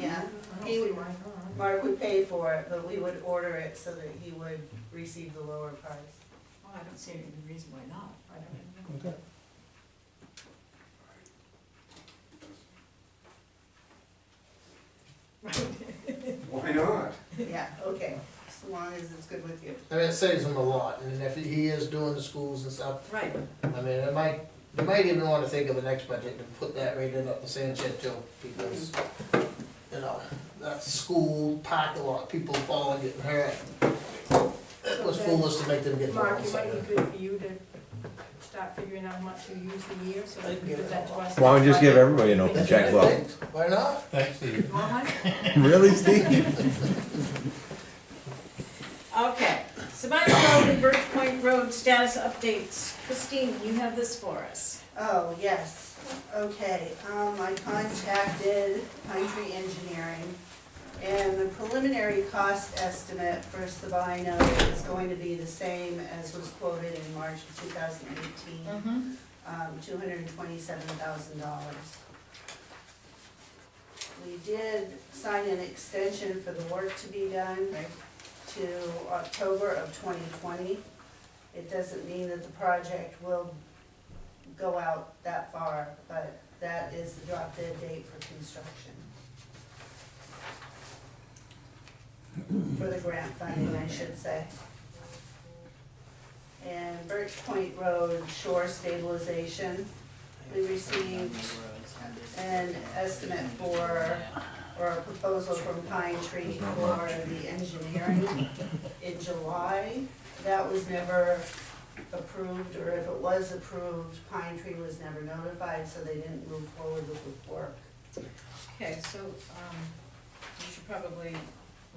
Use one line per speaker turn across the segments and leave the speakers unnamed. "Oh,
Mark would pay for it, but we would order it so that he would receive the lower price.
Well, oh, I don't see any reason why not, I don't
Okay.
Why not?
Yeah, okay, so long as it's good with you.
I mean, it saves him a lot, and if he is doing the schools and stuff,
Right,
I mean, it might, you might even wanna think of the next budget to put that right in at the sand shed too, because, you know, that school parking lot, people falling, getting hurt. It was foolish to make them get
Mark,
involved,
it might
so.
be good for you to start figuring out how much you use a year, so that you can give that to us.
Why don't you just give everybody an open checkbook?
Why not?
you want one?
Really, Steve?
Okay, Sabino Road and Birch Point Road status updates. Christine, you have this for us.
Oh, yes, okay, um, I contacted Pine Tree Engineering, and the preliminary cost estimate for Sabino is going to be the same as was quoted in March of two thousand eighteen,
Mm-hmm.
um, two hundred and twenty-seven thousand dollars. We did sign an extension for the work to be done
Right.
to October of twenty twenty. It doesn't mean that the project will go out that far, but that is the drop dead date for construction. For the grant funding, I should say. And Birch Point Road shore stabilization, we received an estimate for, or a proposal from Pine Tree for the engineering in July. That was never approved, or if it was approved, Pine Tree was never notified, so they didn't move forward with the work.
Okay, so, um, you should probably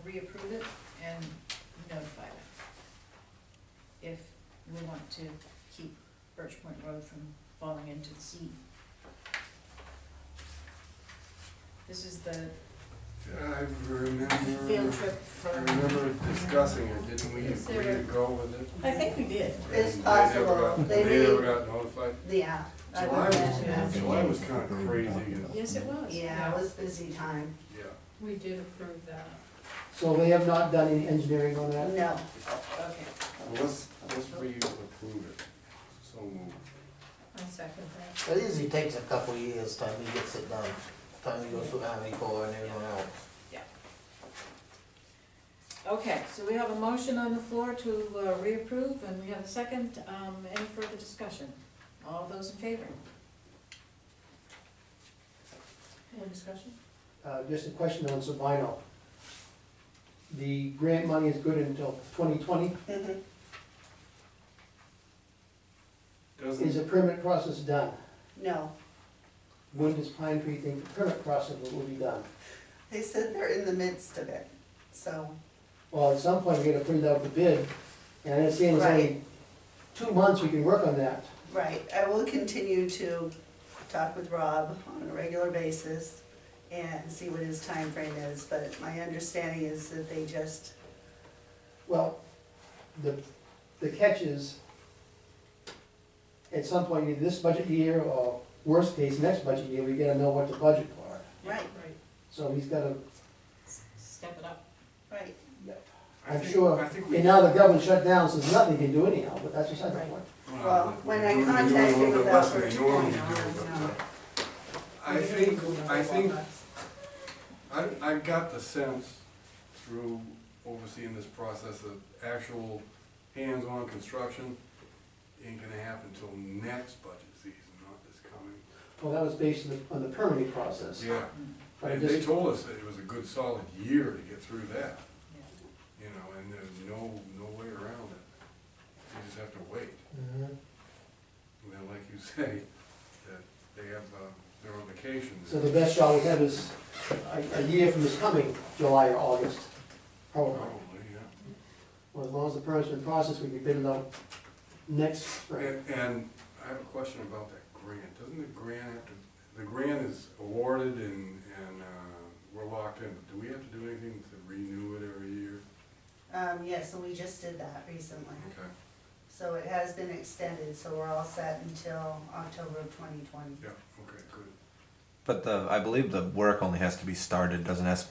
reapprove it and notify it. If we want to keep Birch Point Road from falling into the sea. This is the
I remember.
field trip
I
for.
remember discussing it, didn't we
Is
agree
there-
to go with it?
I think we did.
It's
And they never
possible.
got-
They
They never
may-
got notified.
Yeah. I would
July
imagine
was,
that's-
July was kinda crazy,
Yes, it was.
Yeah, it was busy time.
yeah.
We did approve that.
So they have not done any engineering on that?
No,
Okay.
Unless, unless we approve it, so moved.
I second that.
It usually takes a couple years time he gets it done, time he goes through Army Corps and everyone else.
Okay, so we have a motion on the floor to uh, reapprove, and we have a second. Um, Any further discussion? All those in favor?
More discussion?
Uh, just a question on Sabino. The grant money is good until twenty twenty. Is
Doesn't,
the permit process done?
no.
When does Pine Tree think the permit process will be done?
They said they're in the midst of it, so.
Well, at some point, we gotta put it out for bid, and I understand it's only
Right.
two months we can work on that.
Right, I will continue to talk with Rob on a regular basis and see what his time frame is, but my understanding is that they just,
Well, the, the catch is, at some point, either this budget year, or worst case, next budget year, we gotta know what to budget for.
right,
Right.
So he's gotta,
S- Step it up.
right,
I
I'm
think,
sure,
I think we.
and now the government shut down, so there's nothing you can do anyhow, but that's just another
Right.
one.
Well, when I
we're doing a
contacted
little bit
with
less than we
Albert-
normally do,
I know,
but,
I know.
uh, I think, I think I, I got the sense through overseeing this process that actual hands-on construction ain't gonna happen till next budget season, not this coming.
Well, that was based on the, on the permitting process.
Yeah,
But
and
it
they
just,
told us that it was a good solid year to get through that,
Yeah.
you know, and there's no, no way around it. You just have to wait.
Mm-hmm.
Mhm.
And then, like you say, that they have, uh, they're on vacation.
so the best shot we have is a, a year from this coming, July or August, probably.
Probably, yeah.
Well, as long as the permit's been processed, we can bid it out next spring.
And, and I have a question about that grant. Doesn't the grant have to, the grant is awarded and, and, uh, we're locked in. Do we have to do anything to renew it every year?
Um, yes, and we just did that recently.
Okay,
So it has been extended, so we're all set until October of twenty twenty.
yeah, okay, good.
But the, I believe the work only has to be started, doesn't have to be